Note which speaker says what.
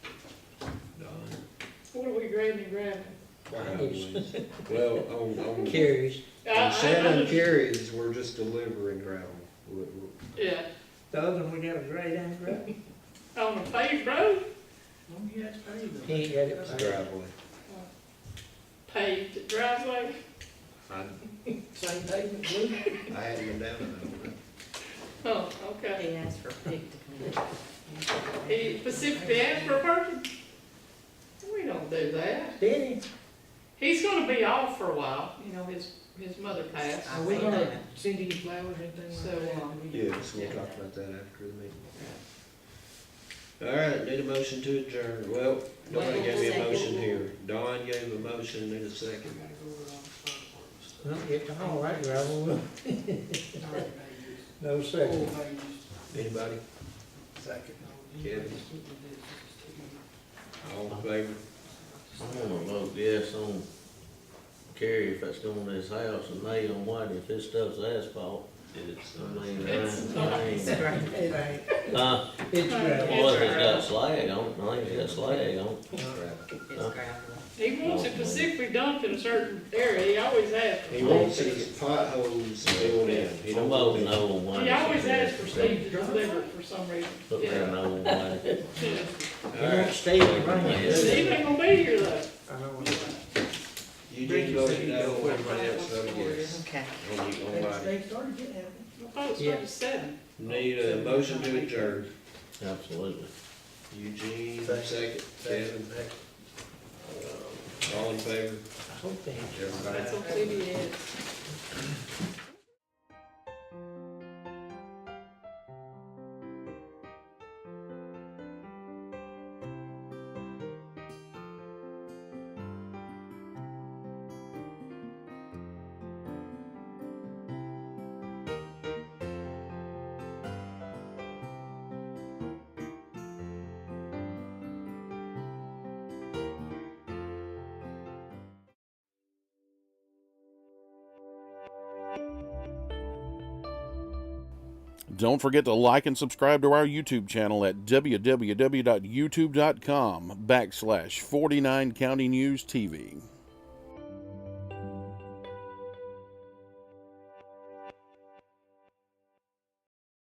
Speaker 1: Uh,
Speaker 2: What are we grading and grabbing?
Speaker 3: Driveways.
Speaker 1: Well, on, on,
Speaker 3: Carries.
Speaker 2: I- I-
Speaker 1: on seven
Speaker 2: I-
Speaker 1: carries, we're just delivering gravel. We- we-
Speaker 2: Yeah,
Speaker 4: The other one we got was right on the road.
Speaker 2: on a paved road,
Speaker 5: Well, yeah, it's pretty good.
Speaker 4: He ain't got it.
Speaker 1: It's
Speaker 4: planned.
Speaker 1: gravelly.
Speaker 2: paved driveway,
Speaker 1: I,
Speaker 5: Same pavement, blue.
Speaker 1: I hadn't been down in that one.
Speaker 2: oh, okay.
Speaker 6: He asked for a pig to come in.
Speaker 2: He specifically asked for a person? We don't do that.
Speaker 4: Did he?
Speaker 2: He's gonna be off for a while, you know, his, his mother passed.
Speaker 6: I
Speaker 5: Are we
Speaker 6: think
Speaker 5: gonna
Speaker 6: that-
Speaker 5: send any flowers, anything
Speaker 2: So,
Speaker 5: like that?
Speaker 2: um,
Speaker 1: Yeah, so we'll talk about that after the meeting. All right, need a motion to adjourn. Well, nobody gave me a motion here. Don gave a motion, need a second.
Speaker 4: Well, get the hall right gravel. No second.
Speaker 1: Anybody? Kevin? All in favor?
Speaker 3: I'm gonna vote yes on Carrie if it's going to his house and nay on White if his stuff's asphalt.
Speaker 1: It's,
Speaker 3: I mean, I
Speaker 2: It's
Speaker 3: ain't-
Speaker 2: not.
Speaker 3: I ain't-
Speaker 4: It ain't.
Speaker 3: Huh?
Speaker 4: It's gravel.
Speaker 3: Well, if it's got slag on, it, I think it's got slag on.
Speaker 1: gravel.
Speaker 3: it.
Speaker 6: It's gravel.
Speaker 2: He wants it specifically dumped in a certain area, he always asks.
Speaker 1: He wants his potholes filled in. He
Speaker 3: I'm
Speaker 1: don't want
Speaker 3: voting
Speaker 1: it.
Speaker 3: no on White.
Speaker 2: He always asks for Steve to deliver it for some reason.
Speaker 3: Put there
Speaker 2: Yeah.
Speaker 3: no on White.
Speaker 2: Yeah.
Speaker 4: It
Speaker 1: All right,
Speaker 4: won't stay in the rain.
Speaker 2: Steve ain't gonna be here though.
Speaker 4: I don't know.
Speaker 1: you did vote no, everybody else voted yes.
Speaker 6: Okay.
Speaker 1: On the, on White.
Speaker 5: They started getting out.
Speaker 2: I thought it was
Speaker 4: Yeah.
Speaker 2: supposed to seven.
Speaker 1: Need a motion to adjourn.
Speaker 3: Absolutely.
Speaker 1: Eugene, second. Kevin, Um, all in favor?
Speaker 4: I hope they.
Speaker 1: Everybody?
Speaker 2: That's what Stevie is.
Speaker 7: Don't forget to like and subscribe to our YouTube channel at www.youtube.com backslash 49 County News TV.